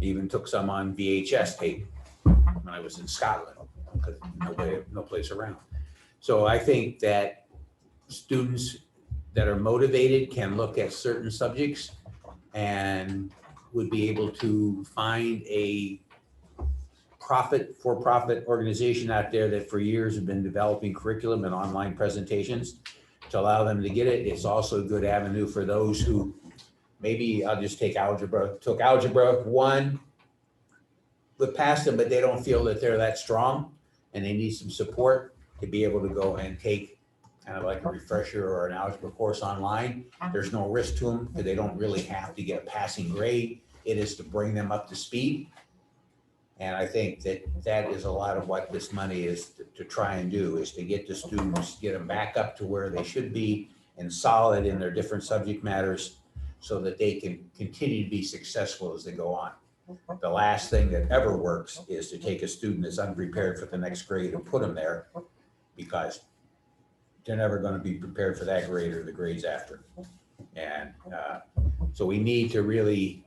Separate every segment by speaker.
Speaker 1: Even took some on VHS tape when I was in Scotland, because no way, no place around. So I think that students that are motivated can look at certain subjects and would be able to find a profit, for-profit organization out there that for years have been developing curriculum and online presentations to allow them to get it. It's also a good avenue for those who, maybe I'll just take algebra, took algebra one, but passed them, but they don't feel that they're that strong and they need some support to be able to go and take kind of like a refresher or an algebra course online. There's no risk to them, because they don't really have to get a passing grade. It is to bring them up to speed. And I think that that is a lot of what this money is to- to try and do, is to get the students, get them back up to where they should be and solid in their different subject matters so that they can continue to be successful as they go on. The last thing that ever works is to take a student that's unprepared for the next grade and put them there because they're never going to be prepared for that grade or the grades after. And uh, so we need to really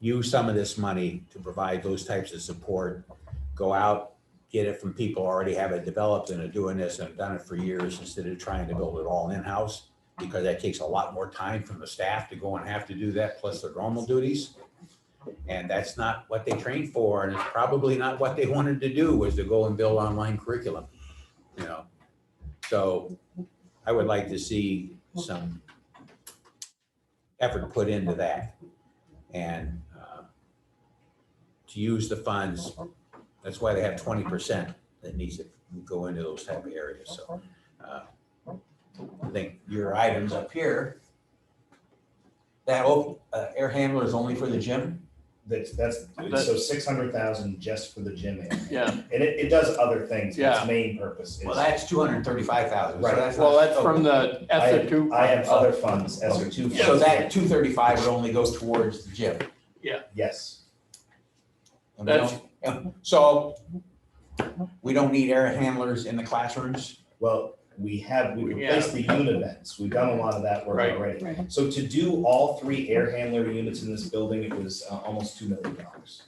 Speaker 1: use some of this money to provide those types of support. Go out, get it from people who already have it developed and are doing this and have done it for years instead of trying to build it all in-house. Because that takes a lot more time from the staff to go and have to do that, plus their normal duties. And that's not what they trained for, and it's probably not what they wanted to do, was to go and build online curriculum, you know? So I would like to see some effort put into that and uh, to use the funds, that's why they have twenty percent that needs to go into those type of areas, so. uh, I think your items up here, that op- uh, air handler is only for the gym?
Speaker 2: That's, that's,
Speaker 3: That's-
Speaker 2: so six hundred thousand just for the gym aid.
Speaker 3: Yeah,
Speaker 2: And it, it does other things, but
Speaker 3: Yeah.
Speaker 2: its main purpose is.
Speaker 1: Well, that's two hundred and thirty-five thousand.
Speaker 2: Right.
Speaker 3: well, that's from the
Speaker 2: Oh, I
Speaker 3: ESER
Speaker 2: have-
Speaker 3: two.
Speaker 2: I have other funds, ESER two.
Speaker 1: So that two thirty-five would only go towards the gym.
Speaker 2: Yes,
Speaker 1: and we don't- and So we don't need air handlers in the classrooms?
Speaker 2: well, we have, we
Speaker 3: We-
Speaker 2: replaced the unit events, we've done a lot of that work
Speaker 3: Right.
Speaker 2: already.
Speaker 4: Right.
Speaker 2: So to do all three air handler units in this building, it was uh, almost two million dollars.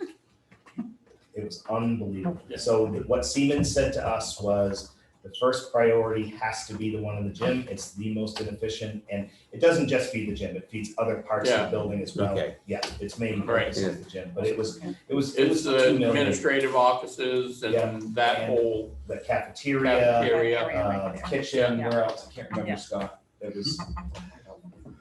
Speaker 2: It was unbelievable.
Speaker 3: Yeah.
Speaker 2: So th- what Siemens said to us was, the first priority has to be the one in the gym, it's the most inefficient, and it doesn't just feed the gym, it feeds other parts of the
Speaker 3: Yeah.
Speaker 2: building as well.
Speaker 1: Okay.
Speaker 2: Yeah, its main
Speaker 3: Right.
Speaker 2: purpose is the gym, but it was, it was, it
Speaker 3: It's
Speaker 2: was
Speaker 3: the
Speaker 2: two million,
Speaker 3: administrative offices
Speaker 2: Yeah.
Speaker 3: and that whole
Speaker 2: the cafeteria,
Speaker 3: cafeteria.
Speaker 2: uh, kitchen,
Speaker 4: Yeah.
Speaker 2: where else, I can't
Speaker 4: Yeah.
Speaker 2: remember, Scott, it was.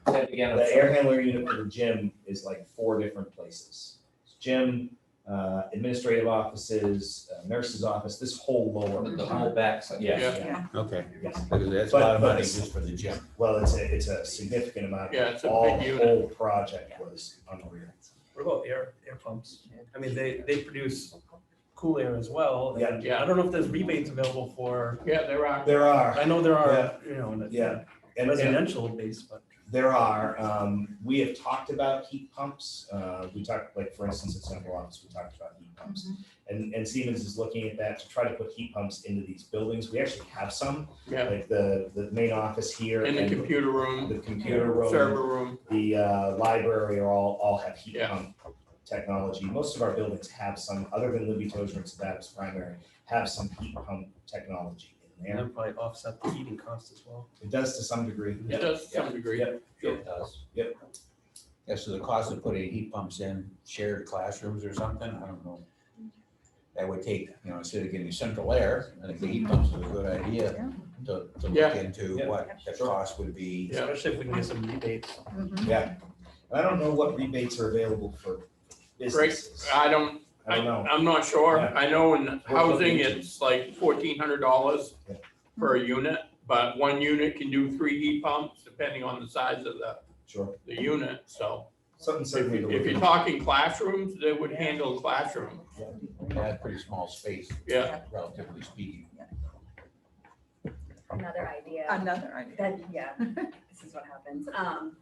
Speaker 5: again,
Speaker 2: The air handler unit for the gym is like four different places. Gym, uh, administrative offices, uh, nurse's office, this whole lower.
Speaker 5: the whole backside, yeah.
Speaker 3: Mm-hmm. Yeah.
Speaker 1: Okay,
Speaker 2: Yes.
Speaker 1: because that's a lot of
Speaker 2: But- but
Speaker 1: money
Speaker 2: it's-
Speaker 1: just for the gym.
Speaker 2: Well, it's a, it's a significant amount.
Speaker 3: Yeah, it's a
Speaker 2: All,
Speaker 3: big
Speaker 2: the
Speaker 3: unit.
Speaker 2: whole project was unreal.
Speaker 6: What about air, air pumps? I mean, they, they produce cool air as well.
Speaker 2: Yeah.
Speaker 6: Yeah, I don't know if there's rebates available for,
Speaker 3: Yeah, there are.
Speaker 2: There are,
Speaker 6: I know there are,
Speaker 2: Yeah.
Speaker 6: you know, in the-
Speaker 2: Yeah. and, and
Speaker 6: residential base, but.
Speaker 2: There are, um, we have talked about heat pumps, uh, we talked, like, for instance, at central office, we talked about heat pumps. And, and Siemens is looking at that to try to put heat pumps into these buildings, we actually have some.
Speaker 3: Yeah.
Speaker 2: Like the, the main office here.
Speaker 3: In the
Speaker 2: and
Speaker 3: computer room,
Speaker 2: The computer room,
Speaker 3: server room.
Speaker 2: the, uh, library are all, all have heat
Speaker 3: Yeah.
Speaker 2: pump technology, most of our buildings have some, other than Libby Tozer and Sabatis Primary, have some heat pump technology in
Speaker 6: And
Speaker 2: there,
Speaker 6: they'll probably offset the heating cost as well.
Speaker 2: it does to some degree.
Speaker 3: It does to some degree.
Speaker 2: Yeah.
Speaker 1: It does.
Speaker 2: Yep.
Speaker 1: Yeah, so the cost of putting heat pumps in shared classrooms or something, I don't know. That would take, you know, instead of getting central air, I think the heat pumps is a good idea to, to look
Speaker 3: Yeah.
Speaker 1: into
Speaker 2: Yeah.
Speaker 1: what the cost would be.
Speaker 3: Yeah.
Speaker 6: Especially if we can get some rebates.
Speaker 2: Yeah, and I don't know what rebates are available for businesses.
Speaker 3: I don't,
Speaker 2: I
Speaker 3: I,
Speaker 2: don't know.
Speaker 3: I'm not sure.
Speaker 2: Yeah.
Speaker 3: I know in housing,
Speaker 2: looking into-
Speaker 3: it's like fourteen hundred dollars
Speaker 2: Yeah.
Speaker 3: per unit, but one unit can do three heat pumps depending on the size of the,
Speaker 2: Sure,
Speaker 3: the unit, so.
Speaker 2: something certainly to
Speaker 3: If
Speaker 2: look
Speaker 3: you're
Speaker 2: into.
Speaker 3: talking classrooms, they would handle classroom,
Speaker 1: That's pretty small space,
Speaker 3: yeah.
Speaker 1: relatively speaking.
Speaker 7: another idea
Speaker 4: Another idea.
Speaker 7: that, yeah, this is what happens. Um,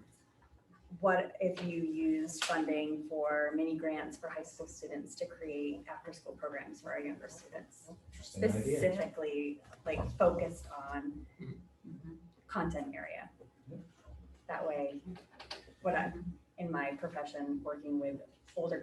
Speaker 7: what if you used funding for mini grants for high school students to create after-school programs for our younger students?
Speaker 2: Interesting idea.
Speaker 7: Specifically, like focused on content area. That way, what I, in my profession, working with older